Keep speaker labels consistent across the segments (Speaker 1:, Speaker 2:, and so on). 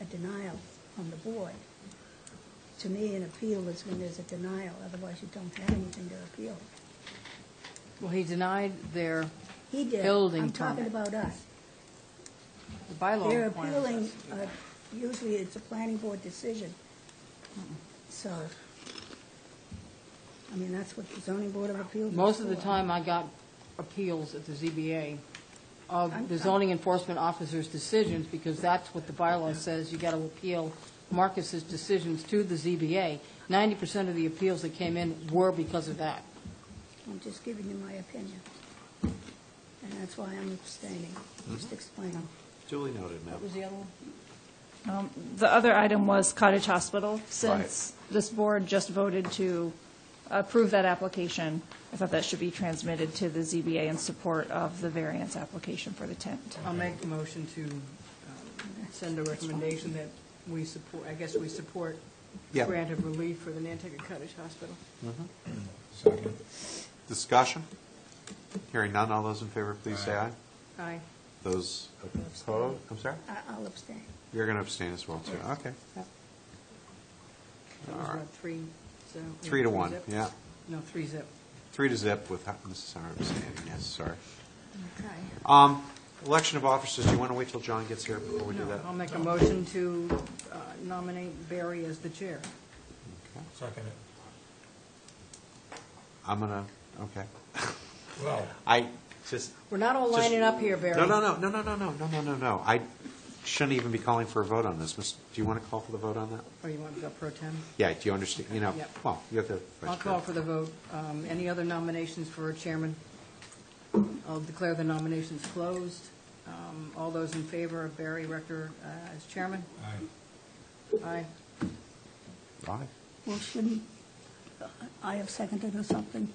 Speaker 1: a denial from the board. To me, an appeal is when there's a denial, otherwise you don't have anything to appeal.
Speaker 2: Well, he denied their,
Speaker 1: He did.
Speaker 2: Building
Speaker 1: I'm talking
Speaker 2: permit.
Speaker 1: about us.
Speaker 2: the bylaw
Speaker 1: They're
Speaker 2: requirements.
Speaker 1: appealing, uh, usually it's a planning board decision. So, I mean, that's what the zoning board of appeals is
Speaker 2: Most of the
Speaker 1: for.
Speaker 2: time, I got appeals at the ZBA
Speaker 1: I'm-
Speaker 2: of the zoning enforcement officer's decisions, because that's what the bylaw says, you got to appeal Marcus's decisions to the ZBA. Ninety percent of the appeals that came in were because of that.
Speaker 1: I'm just giving you my opinion. And that's why I'm abstaining, just explaining.
Speaker 3: Duly noted, ma'am.
Speaker 2: What was the other one?
Speaker 4: Um, The other item was Cottage Hospital, since this board just voted to approve that application. I thought that should be transmitted to the ZBA in support of the variance application for the tent.
Speaker 5: I'll make a motion to um, send a recommendation that we support, I guess we support
Speaker 3: Yeah.
Speaker 5: grant of relief for the Nantucket Cottage Hospital.
Speaker 3: Discussion? Hearing none, all those in favor, please say aye.
Speaker 5: Aye.
Speaker 3: Those opposed, I'm sorry?
Speaker 1: I- I'll abstain.
Speaker 3: You're going to abstain as well, too, okay.
Speaker 5: That was
Speaker 3: All right.
Speaker 5: what, three, so.
Speaker 3: Three to one,
Speaker 5: zip?
Speaker 3: yeah.
Speaker 5: No, three zip.
Speaker 3: Three to zip with Mrs. Sauer abstaining, yes, sorry.
Speaker 5: Okay.
Speaker 3: Um, Election of officers, do you want to wait till John gets here before we do that?
Speaker 5: I'll make a motion to uh, nominate Barry as the chair.
Speaker 3: Okay.
Speaker 6: Second it.
Speaker 3: I'm going to, okay.
Speaker 6: Well,
Speaker 3: I just,
Speaker 5: We're not all
Speaker 3: Just-
Speaker 5: lining up here, Barry.
Speaker 3: no, no, no, no, no, no, no, no, no, no, no. I shouldn't even be calling for a vote on this. Do you want to call for the vote on that?
Speaker 5: Or Oh, you want to go pro tem?
Speaker 3: Yeah, do you understand, you know,
Speaker 5: Yep.
Speaker 3: well, you have the
Speaker 5: I'll
Speaker 3: vice
Speaker 5: call
Speaker 3: chair.
Speaker 5: for the vote. Um, Any other nominations for chairman? I'll declare the nominations closed. Um, All those in favor of Barry Rector uh, as chairman?
Speaker 6: I,
Speaker 5: Aye.
Speaker 3: Aye.
Speaker 1: Well, shouldn't, I have seconded or something?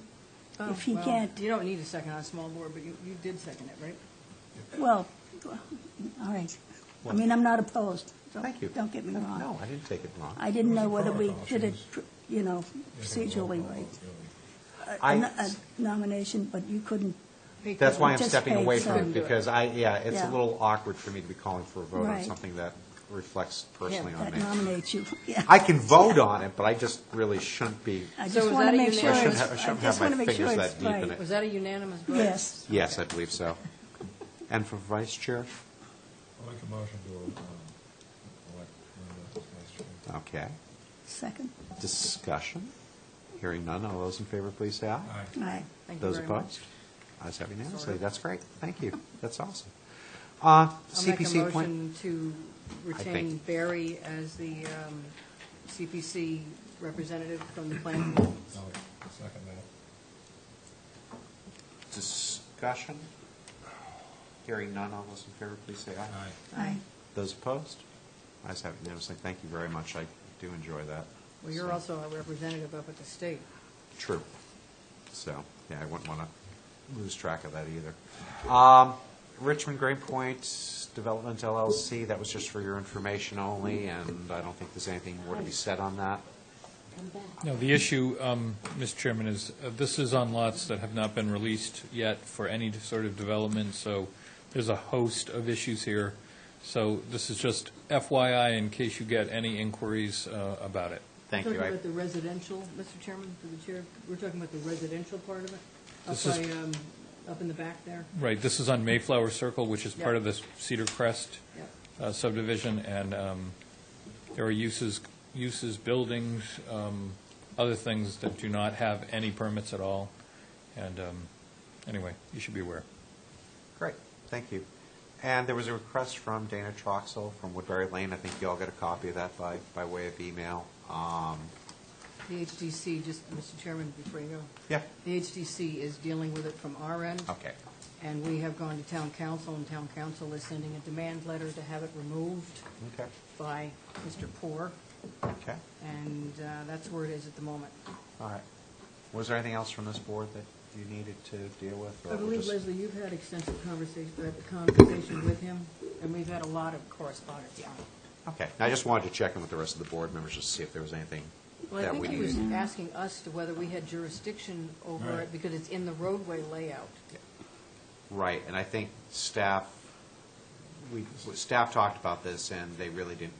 Speaker 3: Oh,
Speaker 1: If he
Speaker 5: Oh, Well,
Speaker 1: can't,
Speaker 5: You don't need a second on a small board, but you, you did second it, right?
Speaker 1: well, all right. I mean, I'm not opposed. Don't-
Speaker 3: Thank you.
Speaker 1: Don't get me
Speaker 3: No,
Speaker 1: wrong.
Speaker 3: No, I didn't take it wrong.
Speaker 1: I didn't know
Speaker 6: Those
Speaker 1: whether
Speaker 6: are
Speaker 1: we
Speaker 6: protocol
Speaker 1: did it,
Speaker 6: things.
Speaker 1: you know,
Speaker 6: you can roll
Speaker 1: procedurally
Speaker 6: call
Speaker 1: right.
Speaker 6: vote, really.
Speaker 1: A
Speaker 3: I-
Speaker 1: no- a nomination, but you couldn't,
Speaker 5: He
Speaker 3: That's why I'm
Speaker 1: uh, Just
Speaker 3: stepping
Speaker 1: paid
Speaker 3: away from
Speaker 1: some.
Speaker 3: it, because I, yeah, it's a
Speaker 1: Yeah.
Speaker 3: little awkward for me to be calling for a vote on
Speaker 1: Right.
Speaker 3: something that reflects personally on
Speaker 1: that
Speaker 3: me.
Speaker 1: nominates you. Yeah.
Speaker 3: I can vote on it, but I just really shouldn't be,
Speaker 1: I
Speaker 5: So
Speaker 1: just
Speaker 5: is
Speaker 1: want
Speaker 5: that
Speaker 1: to
Speaker 5: a
Speaker 1: make sure
Speaker 3: I
Speaker 1: it's,
Speaker 5: unanimous- it's-
Speaker 3: shouldn't have, I
Speaker 1: I
Speaker 3: shouldn't have
Speaker 1: just
Speaker 3: my
Speaker 1: want to make sure
Speaker 3: fingers
Speaker 1: it's
Speaker 3: that deep in
Speaker 1: right.
Speaker 3: it.
Speaker 5: Was that a unanimous vote?
Speaker 1: Yes.
Speaker 3: Yes, I believe so. And for vice chair?
Speaker 6: I'll make a motion to um, elect Linda as vice chair.
Speaker 3: Okay.
Speaker 1: Second?
Speaker 3: Discussion? Hearing none, all those in favor, please say aye.
Speaker 6: Aye.
Speaker 1: Aye.
Speaker 5: Thank you
Speaker 3: Those
Speaker 5: very much.
Speaker 3: opposed? Ayes have unanimously,
Speaker 5: Sorry.
Speaker 3: that's great, thank you, that's awesome. Uh,
Speaker 5: I'll make a
Speaker 3: CPC appointment.
Speaker 5: motion to retain
Speaker 3: think-
Speaker 5: Barry as the um, CPC representative from the planning board.
Speaker 6: I'll second that.
Speaker 3: Discussion? Hearing none, all those in favor, please say aye.
Speaker 6: Aye.
Speaker 1: Aye.
Speaker 3: Those opposed? Ayes have unanimously, thank you very much, I do enjoy that.
Speaker 5: Well, you're
Speaker 3: So-
Speaker 5: also a representative up at the state.
Speaker 3: True. So, yeah, I wouldn't want to lose track of that either. Um, Richmond Green Point Development LLC, that was just for your information only, and I don't think there's anything more to be said on that.
Speaker 7: No, the issue, um, Mr. Chairman, is uh, this is on lots that have not been released yet for any sort of development, so there's a host of issues here. So this is just FYI in case you get any inquiries uh, about it.
Speaker 3: Thank you.
Speaker 5: Talking
Speaker 3: I-
Speaker 5: about the residential, Mr. Chairman, through the chair, we're talking about the residential part of it? Up
Speaker 7: This is-
Speaker 5: by, um, up in the back there?
Speaker 7: Right, this is on Mayflower Circle, which is part
Speaker 5: Yeah.
Speaker 7: of the Cedar Crest
Speaker 5: Yep.
Speaker 7: uh, subdivision, and um, there are uses, uses, buildings, um, other things that do not have any permits at all. And um, anyway, you should be aware.
Speaker 3: Great, thank you. And there was a request from Dana Troxel from Woodbury Lane. I think you all got a copy of that by, by way of email. Um,
Speaker 5: The HDC, just, Mr. Chairman, before you go.
Speaker 3: Yeah,
Speaker 5: The HDC is dealing with it from our end.
Speaker 3: okay.
Speaker 5: And we have gone to town council, and town council is sending a demand letter to have it removed
Speaker 3: Okay,
Speaker 5: by Mr. Poor,
Speaker 3: okay,
Speaker 5: and uh, that's where it is at the moment.
Speaker 3: all right. Was there anything else from this board that you needed to deal with? or
Speaker 5: I
Speaker 3: we'll
Speaker 5: believe,
Speaker 3: just-
Speaker 5: Leslie, you've had extensive conversation, uh, conversation with him, and we've had a lot of correspondence on it.
Speaker 3: Okay, I just wanted to check in with the rest of the board members just to see if there was anything
Speaker 5: Well, I
Speaker 3: that we
Speaker 5: think he was
Speaker 3: needed.
Speaker 5: asking us to whether we had jurisdiction over
Speaker 6: Right.
Speaker 5: it, because it's in the roadway layout.
Speaker 3: Right, and I think staff, we, staff talked about this, and they really didn't